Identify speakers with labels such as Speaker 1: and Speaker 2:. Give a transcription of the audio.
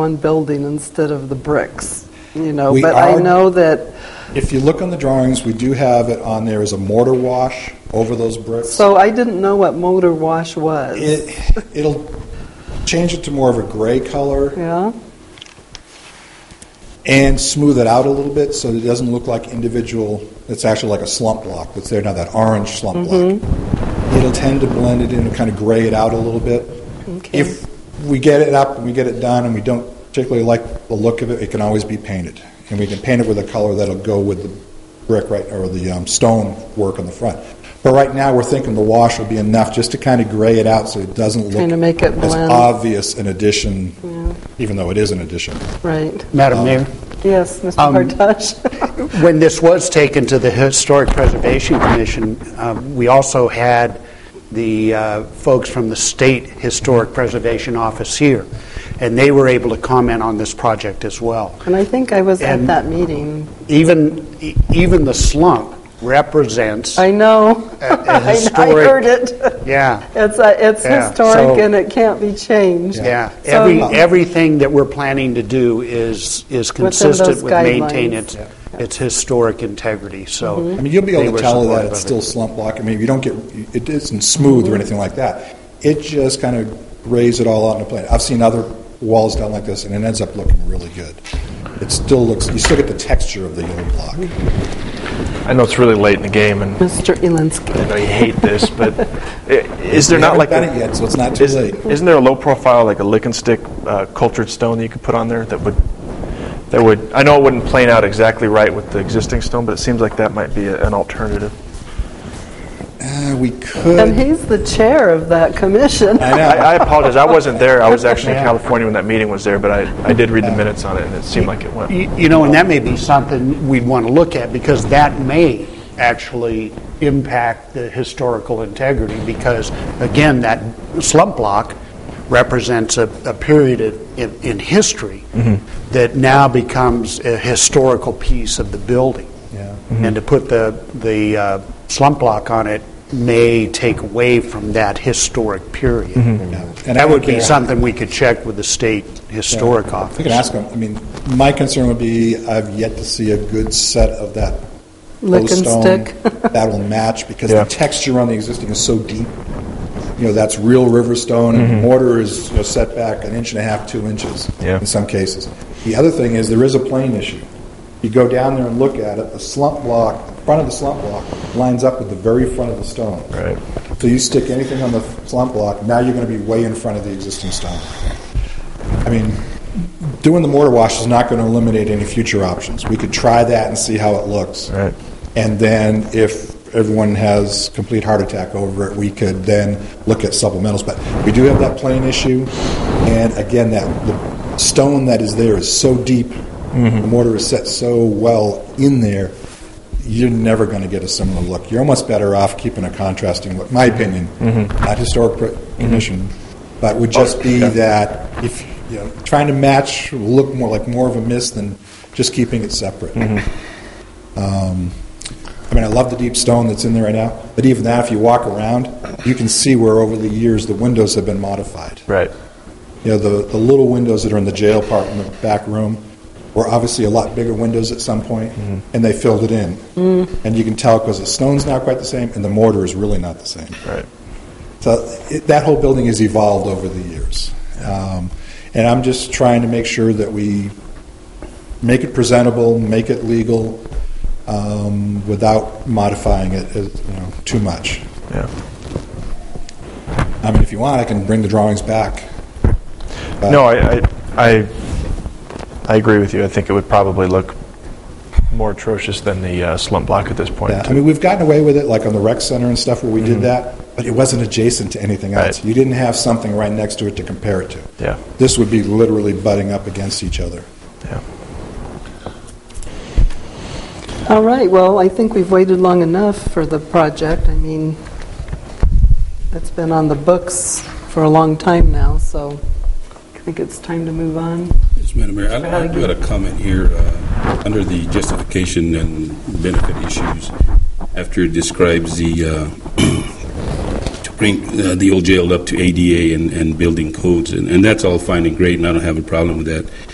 Speaker 1: one building instead of the bricks, you know?
Speaker 2: We
Speaker 1: But I
Speaker 2: are-
Speaker 1: know that,
Speaker 2: If you look on the drawings, we do have it on there as a mortar wash over those bricks.
Speaker 1: so I didn't know what motor wash was.
Speaker 2: It, it'll change it to more of a gray color
Speaker 1: Yeah?
Speaker 2: and smooth it out a little bit so that it doesn't look like individual, it's actually like a slump block that's there now, that orange slump
Speaker 1: Mm-hmm.
Speaker 2: block. It'll tend to blend it in and kind of gray it out a little bit.
Speaker 1: Okay.
Speaker 2: If we get it up and we get it done and we don't particularly like the look of it, it can always be painted. And we can paint it with a color that'll go with the brick right, or the um, stone work on the front. But right now, we're thinking the wash will be enough just to kind of gray it out so it doesn't look
Speaker 1: Kinda make it
Speaker 2: as
Speaker 1: blend.
Speaker 2: obvious an addition, even though it is an addition.
Speaker 1: Right.
Speaker 3: Madam Mayor,
Speaker 1: Yes, Mr.
Speaker 3: Um,
Speaker 1: Hartosh?
Speaker 3: when this was taken to the Historic Preservation Commission, um, we also had the uh, folks from the State Historic Preservation Office here, and they were able to comment on this project as well.
Speaker 1: And I think I was at
Speaker 3: And-
Speaker 1: that meeting.
Speaker 3: Even, e- even the slump represents,
Speaker 1: I know.
Speaker 3: A- a
Speaker 1: I- I
Speaker 3: historic-
Speaker 1: heard it.
Speaker 3: yeah,
Speaker 1: It's, a- it's
Speaker 3: Yeah,
Speaker 1: historic
Speaker 3: so-
Speaker 1: and it can't be changed.
Speaker 3: yeah.
Speaker 1: So-
Speaker 3: Every, everything that we're planning to do is, is
Speaker 1: Within those
Speaker 3: consistent with maintaining
Speaker 1: guidelines. Mm-hmm.
Speaker 3: its, its historic integrity, so.
Speaker 2: I mean, you'll be
Speaker 3: they
Speaker 2: able
Speaker 3: were
Speaker 2: to tell that
Speaker 3: supportive
Speaker 2: it's
Speaker 3: of it.
Speaker 2: still slump block. I mean, you don't get, it isn't smooth or anything like that. It just kind of grays it all out in a plane. I've seen other walls done like this, and it ends up looking really good. It still looks, you still get the texture of the old block.
Speaker 4: I know it's really late in the game, and
Speaker 1: Mr.
Speaker 4: I know
Speaker 1: Elinsky.
Speaker 4: you hate this, but i- is there
Speaker 2: We
Speaker 4: not
Speaker 2: haven't
Speaker 4: like
Speaker 2: done
Speaker 4: a-
Speaker 2: it yet, so it's not too
Speaker 4: is-
Speaker 2: late.
Speaker 4: Isn't there a low profile, like a lick and stick uh, cultured stone that you could put on there that would that would? I know it wouldn't plane out exactly right with the existing stone, but it seems like that might be a, an alternative.
Speaker 2: Uh, we
Speaker 1: And
Speaker 2: could.
Speaker 1: he's the chair of that commission.
Speaker 2: I know.
Speaker 4: I, I apologize. I wasn't there. I was actually in California when that meeting was there, but I, I did read the minutes on it, and it seemed like it went.
Speaker 3: Y- You know, and that may be something we'd want to look at, because that may actually impact the historical integrity, because, again, that slump block represents a, a period of, in, in history that now becomes a historical piece of the building.
Speaker 2: Yeah.
Speaker 3: And to put the, the uh, slump block on it may take away from that historic period.
Speaker 2: And I
Speaker 3: That
Speaker 2: don't
Speaker 3: would be
Speaker 2: care.
Speaker 3: something we could check with the state historic office.
Speaker 2: We can ask them. I mean, my concern would be, I've yet to see a good set of that
Speaker 1: Lick
Speaker 2: post
Speaker 1: and
Speaker 2: stone
Speaker 1: stick.
Speaker 2: that will match, because
Speaker 4: Yeah.
Speaker 2: the texture on the existing is so deep. You know, that's real river stone, and mortar is, you know, set back an inch and a half, two inches
Speaker 4: Mm-hmm. Yeah.
Speaker 2: in some cases. The other thing is, there is a plane issue. You go down there and look at it, the slump block, front of the slump block lines up with the very front of the stone.
Speaker 4: Right.
Speaker 2: So you stick anything on the slump block, now you're going to be way in front of the existing stone. I mean, doing the mortar wash is not going to eliminate any future options. We could try that and see how it looks.
Speaker 4: Right.
Speaker 2: And then if everyone has complete heart attack over it, we could then look at supplementals. But we do have that plane issue, and again, that the stone that is there is so deep, the mortar is set so well in there, you're never going to get a similar look. You're almost better off keeping a contrasting look, my opinion. Not historic pr- commission, but would just be that if you know, trying to match will look more like more of a mist than just keeping it separate. I mean, I love the deep stone that's in there right now, but even that, if you walk around, you can see where over the years the windows have been modified.
Speaker 4: Right.
Speaker 2: You know, the, the little windows that are in the jail part in the back room were obviously a lot bigger windows at some point,
Speaker 4: Mm-hmm.
Speaker 2: and they filled it in. And you can tell because the stone's not quite the same, and the mortar is really not the same.
Speaker 4: Right.
Speaker 2: So it, that whole building has evolved over the years. Um, and I'm just trying to make sure that we make it presentable, make it legal, um, without modifying it as, you know, too much.
Speaker 4: Yeah.
Speaker 2: I mean, if you want, I can bring the drawings back. But-
Speaker 4: No, I, I, I, I agree with you. I think it would probably look more atrocious than the uh, slump block at this point.
Speaker 2: Yeah, I mean, we've gotten away with it, like on the rec center and stuff where we did that, but it wasn't adjacent to anything else.
Speaker 4: Mm-hmm. Right.
Speaker 2: You didn't have something right next to it to compare it to.
Speaker 4: Yeah.
Speaker 2: This would be literally butting up against each other.
Speaker 4: yeah.
Speaker 1: All right, well, I think we've waited long enough for the project. I mean, it's been on the books for a long time now, so I think it's time to move on.
Speaker 5: Yes, Madam Mayor, I I do have a comment here, uh, under the justification and benefit issues, after it describes the uh, to bring uh, the old jail up to ADA and, and building codes, and, and that's all fine and great, and I don't have a problem with that.